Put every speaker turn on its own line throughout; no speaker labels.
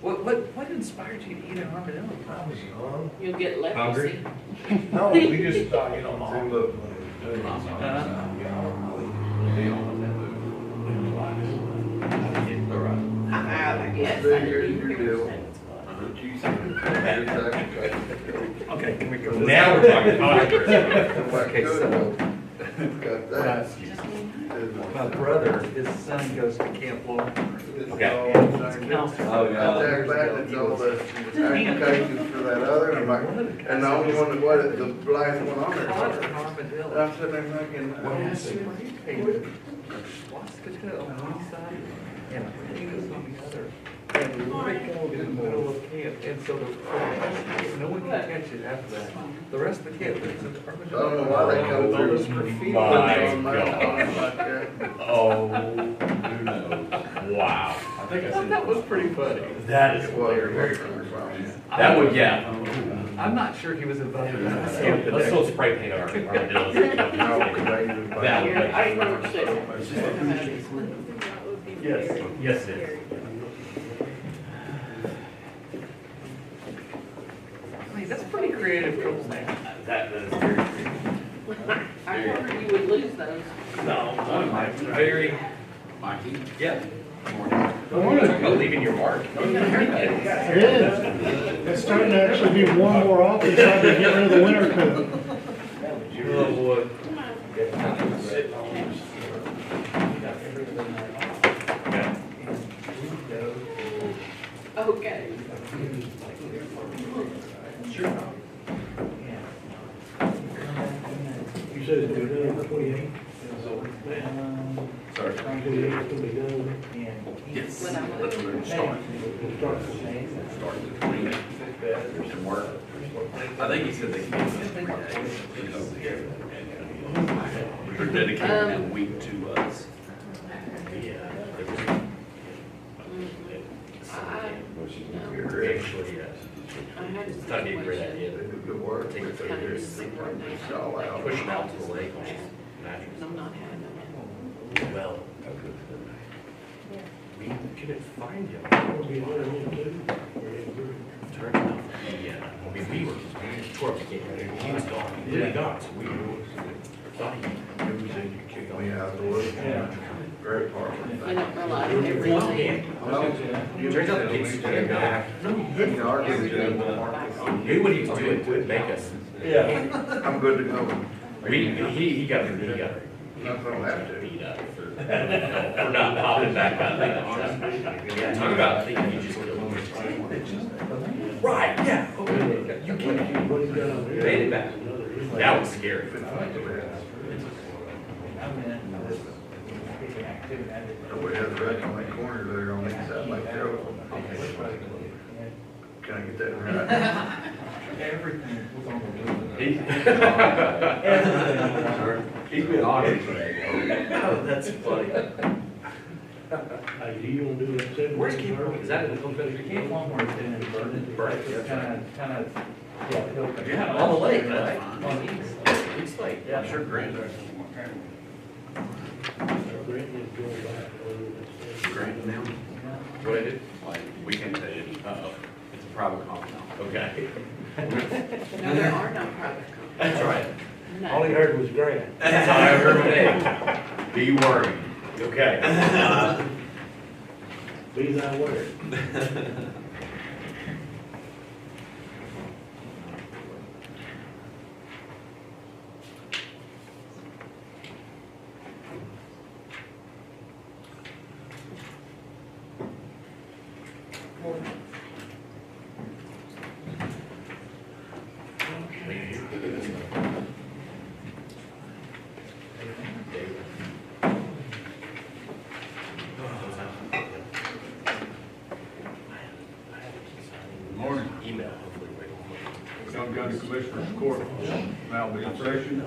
What, what, what inspired you to eat an armadillo?
I was young.
You'll get
Hungry?
leprosy.
No, we just
uh,
thought, you know,
Mom.
mom loved when we were doing this.
Uh-huh.
Yeah, I
Alright.
I like it.
Yes, I
Then you're-
do.
you're deal.
Okay, can we go? this
Now
way?
we're talking Congress.
Okay, so-
Got
When I-
that.
My brother, his son goes to Camp Long.
Okay.
Oh,
Jack Blackman's all the applications for that other, and I'm like, and the only one that was, the last one on
Caught an
there. And
armadillo.
I'm sitting there thinking,
Yeah,
uh,
she repaid Swastika on one side and potatoes on the other. And Rick in the middle of camp, and so the, the rest of the kid, no one can catch it after that. The rest of the kid lives in
I
armadillo.
don't know why they come through.
Those graffiti
put it
My
on my
God.
lawn like that.
Oh, who knows? Wow.
I think I
I thought
said.
that was pretty funny.
That is
It was
hilarious.
very funny.
That would, yeah.
I'm not sure he was invited. to that camp
Let's
today.
still spray paint our armadillos.
No, 'cause I usually buy-
That
Here, I want to
Yes, yes it is.
I mean, that's pretty creative trouble name.
That is very creepy.
I wondered you would lose those.
No, one might be very,
Mikey?
yeah.
Morning.
About leaving your mark.
It is. It's starting to actually be warm more often, trying to get rid of the winter coat.
Oh, boy. Yeah.
Okay.
You said it's uh, gonna be done by twenty-eight?
Sorry.
Twenty-eight, it's gonna be done,
Yes.
When I'm looking.
We'll start from there.
Started at twenty-eight. Some work.
I think he said they came in three days.
They're dedicating a week to us.
I, no,
Actually, yes.
I had a
It's not even a great
situation.
idea.
They do good work.
Take it thirty
Kind of
years.
sick right
It's
now.
all out.
Push it out to the lake.
And I'm not having them.
Well. We couldn't find him.
We'll be done in two. We're in three.
Turned out, yeah, I mean, we were, we tore up the gate. He was gone. He really gone, so we were. Thought he.
You said you kicked me out of the woods. Very powerful.
They don't realize everything.
Turns out the gates came back.
You argued with
Everything
him.
went back.
Knew what he was doing to make us.
I'm good to go.
We, he, he got, he got
Not gonna have to.
beat up for, for not popping back on that. Yeah, talk about thinking you just killed him. Right, yeah. Okay, You can,
What he's done there.
made it back.
Another inlet.
That was scary.
We had the wreck on that corner there on the side like there. Can I get that right?
He- He's been honored today. Oh, that's funny.
Hey, you gonna do that seven?
Where's Camp Rock? Is that in the Confederate camp?
Longmore's in and Vernon.
Right, yeah.
Kind of, kind of, yeah, hill country.
Yeah, on the lake, right?
On the east.
It's like, yeah, I'm sure Grant.
Brent is going back over that seven.
Granted now,
What I did?
like, we can't tell you, uh-oh, it's a private comment now.
Okay.
No, there are no private companies.
That's right.
All he
No.
heard was grand.
That's all I heard today. Be worried. Okay. Uh,
Be thy word.
Morning. Email, hopefully.
Young County Commissioners Court now be in session,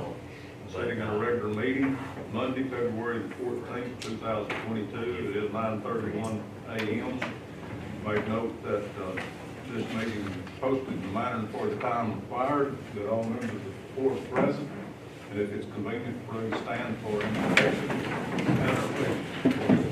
setting a regular meeting Monday, February the fourteenth, two thousand twenty-two. It is nine thirty-one AM. Make note that uh, this meeting is posted in the manner for the time required, that all members of the court are present, and if it's convenient, please stand for invocation. and our pledge.